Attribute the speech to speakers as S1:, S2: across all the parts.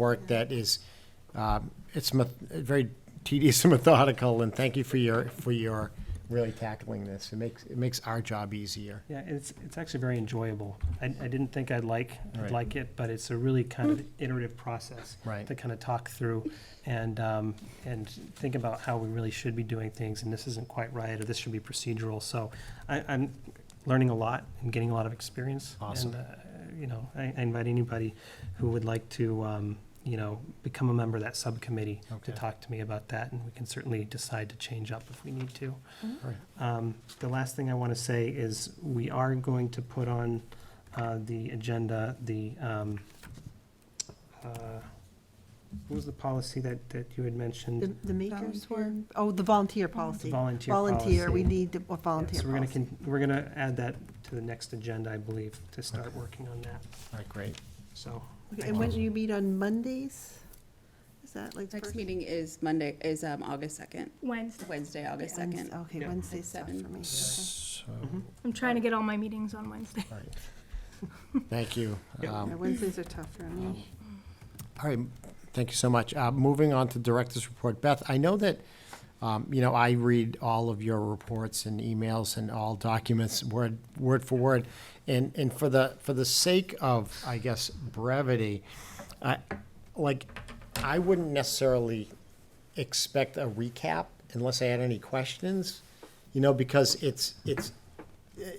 S1: work that is, uh, it's meth- very tedious and methodical, and thank you for your, for your really tackling this. It makes, it makes our job easier.
S2: Yeah, it's, it's actually very enjoyable. I, I didn't think I'd like,
S1: Right.
S2: I'd like it, but it's a really kind of iterative process.
S1: Right.
S2: To kind of talk through and, um, and think about how we really should be doing things, and this isn't quite right, or this should be procedural. So I, I'm learning a lot and getting a lot of experience.
S1: Awesome.
S2: And, uh, you know, I, I invite anybody who would like to, um, you know, become a member of that subcommittee
S1: Okay.
S2: to talk to me about that, and we can certainly decide to change up if we need to.
S1: Right.
S2: Um, The last thing I want to say is we are going to put on uh, the agenda, the, um, uh, what was the policy that, that you had mentioned?
S3: The, the makers
S4: Volunteer.
S3: were, oh, the volunteer
S2: The
S3: policy.
S2: Volunteer policy.
S3: Volunteer, we need a volunteer
S2: So we're going to,
S3: policy.
S2: we're going to add that to the next agenda, I believe, to start working on that,
S1: All right, great.
S2: so.
S3: Okay, And when do you meet on Mondays? Is that like?
S4: Next
S3: first-
S4: meeting is Monday, is um, August 2nd,
S5: Wednesday.
S4: Wednesday, August
S3: Wednes-
S4: 2nd.
S3: Okay,
S2: Yeah.
S3: Wednesday's stuff
S4: At
S3: for
S4: seven.
S3: me. okay.
S1: So,
S2: Mhm.
S5: I'm trying to get all my meetings on Wednesday.
S1: all right. Thank you.
S2: Yep.
S1: Um,
S3: Yeah, Wednesdays are tough for me.
S1: All right, thank you so much. Uh, Moving on to Director's Report. Beth, I know that, um, you know, I read all of your reports and emails and all documents, word, word for word. And, and for the, for the sake of, I guess, brevity, I, like, I wouldn't necessarily expect a recap unless I had any questions, you know, because it's, it's,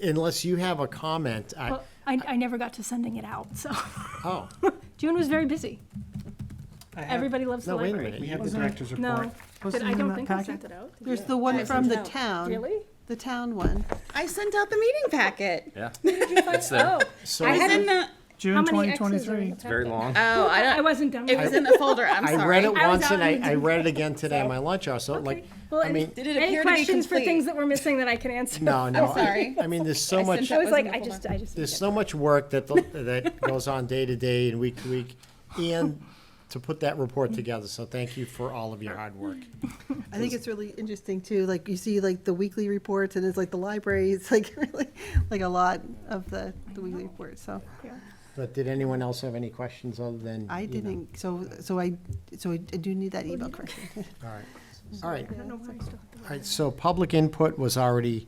S1: unless you have a comment, I,
S5: Well, I, I never got to sending it out, so
S1: oh,
S5: June was very busy.
S2: I have-
S5: Everybody loves the
S1: no, wait a
S5: library.
S1: minute.
S2: We have the director's report.
S5: No, Did- I don't think I sent it out.
S3: There's the one from the town.
S5: Really?
S3: The town one.
S4: I sent out the meeting packet.
S6: Yeah,
S5: It's
S6: there.
S1: So-
S4: I had in the,
S7: June 2023.
S6: it's very long.
S4: oh, I
S5: I
S4: don't,
S5: wasn't done
S4: it
S5: with
S4: was
S5: it.
S4: in the folder, I'm
S1: I read it
S4: sorry.
S5: was
S1: once
S5: out
S1: and I,
S5: and
S1: I read it again today at my lunch hour, so like,
S5: Well,
S1: I
S5: and
S1: mean,
S4: Did it
S5: Any
S4: appear to be
S5: questions for things
S4: complete?
S5: that were missing that I can answer?
S1: no, no. I-
S4: sorry.
S1: I mean, there's so
S4: I
S1: much,
S4: sent
S5: I was
S4: That was
S5: like,
S4: in the
S5: I just, I just.
S1: there's so much work that, the- that goes on day to day and week to week, and to put that report together, so thank you for all of your hard work.
S3: I think it's really interesting too, like you see like the weekly reports and it's like the library, it's like really, like a lot of the, the weekly reports, so.
S1: But did anyone else have any questions other than?
S3: I
S1: you know?
S3: didn't, so, so I, so I do need that email correction.
S1: All right, all right.
S5: I don't know why I still have to-
S1: All right, so public input was already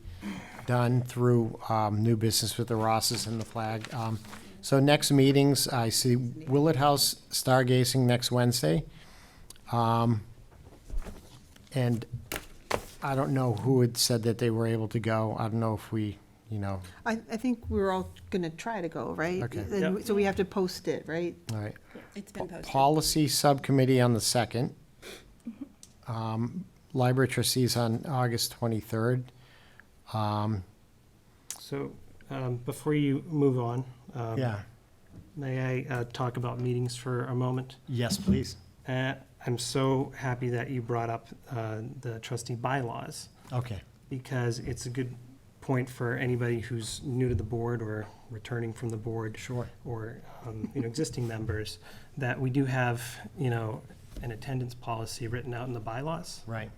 S1: done through um, new business with the Rosses and the flag. Um, So next meetings, I see Willard House stargazing next Wednesday. Um, And I don't know who had said that they were able to go. I don't know if we, you know,
S3: I, I think we're all gonna try to go, right?
S1: Okay.
S3: And So we have to post it, right?
S1: all right.
S4: It's been posted.
S1: Policy Subcommittee on the 2nd. Um, Library trustees on August 23rd. Um,
S2: So, um, before you move on, um,
S1: Yeah,
S2: may I, uh, talk about meetings for a moment?
S1: yes, please.
S2: Uh, I'm so happy that you brought up uh, the trustee bylaws,
S1: Okay.
S2: because it's a good point for anybody who's new to the board or returning from the board.
S1: Sure.
S2: Or, um, you know, existing members, that we do have, you know, an attendance policy written out in the bylaws.
S1: Right.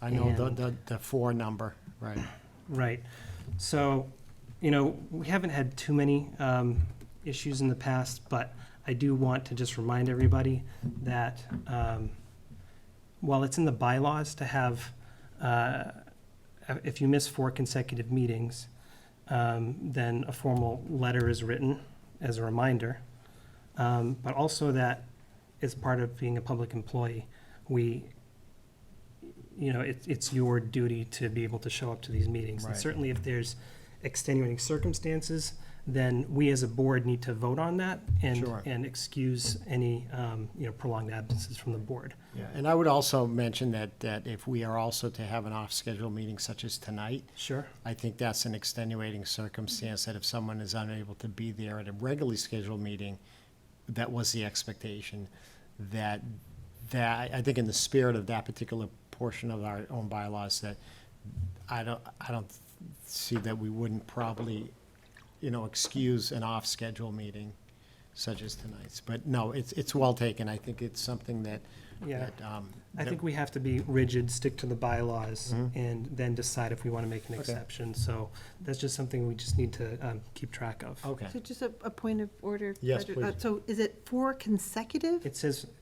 S1: I know the,
S2: And-
S1: the, the four number, right.
S2: Right. So, you know, we haven't had too many um, issues in the past, but I do want to just remind everybody that um, while it's in the bylaws to have, uh, if you miss four consecutive meetings, um, then a formal letter is written as a reminder. Um, But also that as part of being a public employee, we you know, it's, it's your duty to be able to show up to these meetings. And
S1: Right.
S2: certainly if there's extenuating circumstances, then we as a board need to vote on that and,
S1: Sure.
S2: and excuse any, um, you know, prolonged absences from the board.
S1: Yeah, and I would also mention that, that if we are also to have an off-schedule meeting such as tonight,
S2: Sure.
S1: I think that's an extenuating circumstance that if someone is unable to be there at a regularly scheduled meeting, that was the expectation, that, that, I think in the spirit of that particular portion of our own bylaws, that I don't, I don't see that we wouldn't probably, you know, excuse an off-schedule meeting such as tonight's. But no, it's, it's well taken. I think it's something that
S2: Yeah.
S1: that, um,
S2: I
S1: that-
S2: think we have to be rigid, stick to the bylaws, and then decide if we want to make an exception. So that's just something we just need to um, keep track of.
S1: Okay.
S3: So just a, a point of order.
S1: Yes,
S3: Roger. Uh,
S1: please.
S3: So is it four consecutive?
S2: It says